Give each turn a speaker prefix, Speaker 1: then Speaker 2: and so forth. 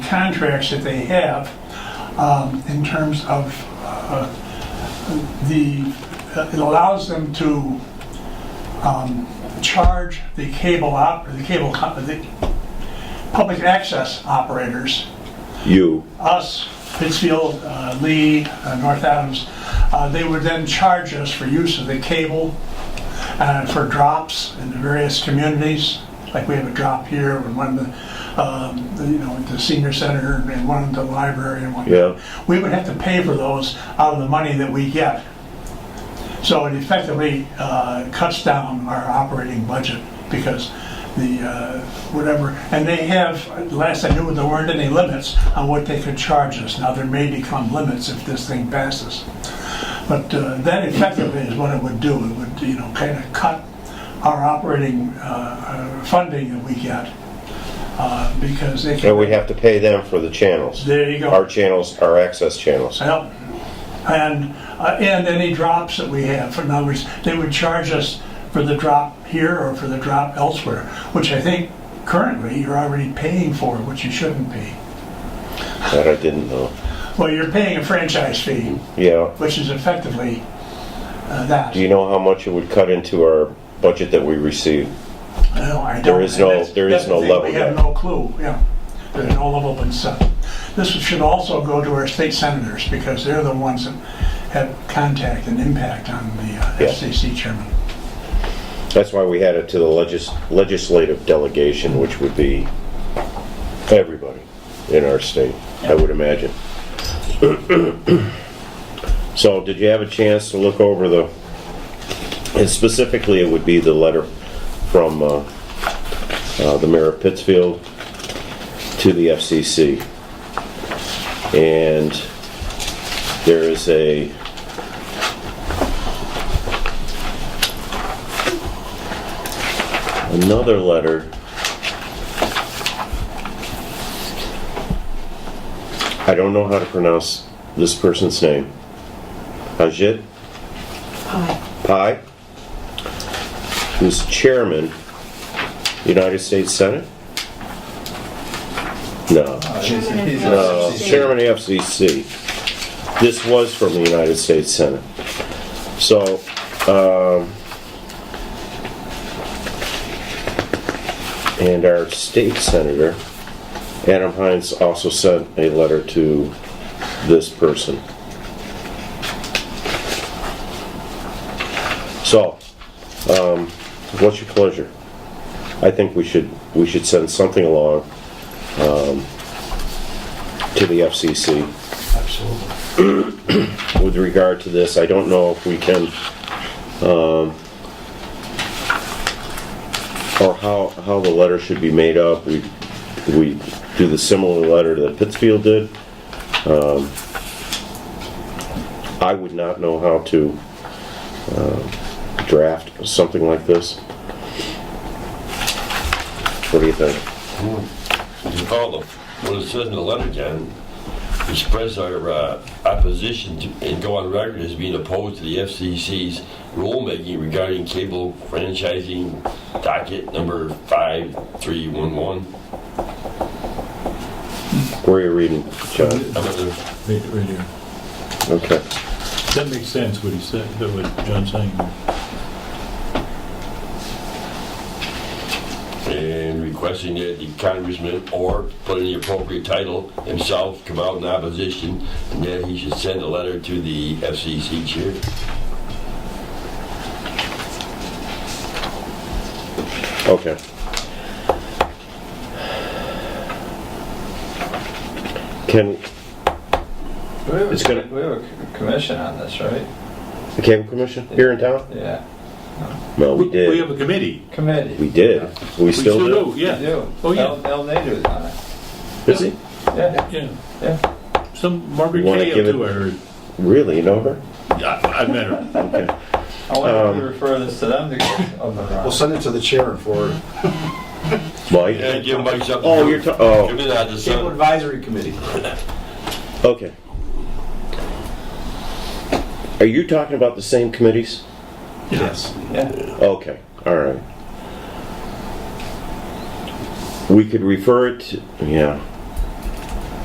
Speaker 1: contracts that they have um, in terms of uh, the, it allows them to um, charge the cable op, the cable, co- the public access operators
Speaker 2: You,
Speaker 1: us, Pittsfield, uh, Lee, uh, North Adams, uh, they would then charge us for use of the cable and for drops in the various communities. Like we have a drop here and one in the, um, the, you know, at the senior center and one at the library and one.
Speaker 2: Yeah.
Speaker 1: We would have to pay for those out of the money that we get. So it effectively uh, cuts down our operating budget because the, uh, whatever, and they have, last I knew, there weren't any limits on what they could charge us. Now, there may become limits if this thing passes. But uh, that effectively is what it would do. It would, you know, kind of cut our operating uh, uh, funding that we get uh, because they
Speaker 2: and
Speaker 1: can,
Speaker 2: we have to pay them for the channels.
Speaker 1: there you go.
Speaker 2: Our channels, our access channels.
Speaker 1: Yep. And, uh, and any drops that we have, in other words, they would charge us for the drop here or for the drop elsewhere, which I think currently you're already paying for, which you shouldn't be.
Speaker 2: That I didn't know.
Speaker 1: Well, you're paying a franchise fee,
Speaker 2: Yeah.
Speaker 1: which is effectively uh, that.
Speaker 2: Do you know how much it would cut into our budget that we receive?
Speaker 1: No, I don't.
Speaker 2: There is no-
Speaker 1: That's-
Speaker 2: there is
Speaker 1: that's
Speaker 2: no
Speaker 1: the thing,
Speaker 2: level
Speaker 1: We have
Speaker 2: yet.
Speaker 1: no clue, yeah. There's no level been set. This should also go to our state senators, because they're the ones that have contact and impact on the uh,
Speaker 2: Yeah.
Speaker 1: FCC chairman.
Speaker 2: That's why we had it to the legis- legislative delegation, which would be everybody in our state, I would imagine. So did you have a chance to look over the, and specifically it would be the letter from uh, uh, the mayor of Pittsfield to the FCC? And there is a, another letter. I don't know how to pronounce this person's name. Ajit Pai, who's chairman, United States Senate? No. Uh, Chairman of the FCC. This was from the United States Senate. So, um, and our state senator, Adam Hines, also sent a letter to this person. So, um, what's your pleasure? I think we should, we should send something along, to the FCC. Absolutely. With regard to this, I don't know if we can, um, or how, how the letter should be made up. We, we do the similar letter that Pittsfield did. Um, I would not know how to um, draft something like this. What do you think?
Speaker 3: All of what it says in the letter, John, express our uh, opposition to- and go on record as being opposed to the FCC's rulemaking regarding cable franchising docket number 5311.
Speaker 2: Where are you reading, John?
Speaker 3: I'm gonna-
Speaker 4: Right right here.
Speaker 2: Okay.
Speaker 4: That makes sense, what he said, that what John's saying.
Speaker 3: And requesting that the congressman or put in the appropriate title himself come out in opposition and that he should send a letter to the FCC chair.
Speaker 2: Okay. Can,
Speaker 5: We have,
Speaker 2: It's gonna-
Speaker 5: a, we have a c- commission on this, right?
Speaker 2: the cable commission here in town?
Speaker 5: Yeah,
Speaker 2: No, we
Speaker 6: We
Speaker 2: did.
Speaker 6: have a committee.
Speaker 5: committee.
Speaker 2: We did. We still do.
Speaker 5: We
Speaker 6: Yeah,
Speaker 5: do.
Speaker 6: Oh, yeah.
Speaker 5: El, El Nader's on it.
Speaker 2: Is he?
Speaker 5: Yeah,
Speaker 4: Yeah,
Speaker 5: yeah.
Speaker 4: some Margaret
Speaker 2: You wanna
Speaker 4: Kay up
Speaker 2: give it-
Speaker 4: to her.
Speaker 2: Really? You know her?
Speaker 4: I I met her.
Speaker 2: Okay.
Speaker 5: I want
Speaker 6: Um,
Speaker 5: to refer this to them to go over on.
Speaker 7: We'll send it to the chair for
Speaker 3: Yeah,
Speaker 2: Mike?
Speaker 3: give Mike something.
Speaker 2: Oh, you're, ta-
Speaker 3: Come
Speaker 2: oh,
Speaker 3: in on the
Speaker 7: Cable
Speaker 3: sun.
Speaker 7: Advisory Committee.
Speaker 2: okay. Are you talking about the same committees?
Speaker 7: Yes.
Speaker 5: Yeah,
Speaker 2: Okay, all right. We could refer it, yeah,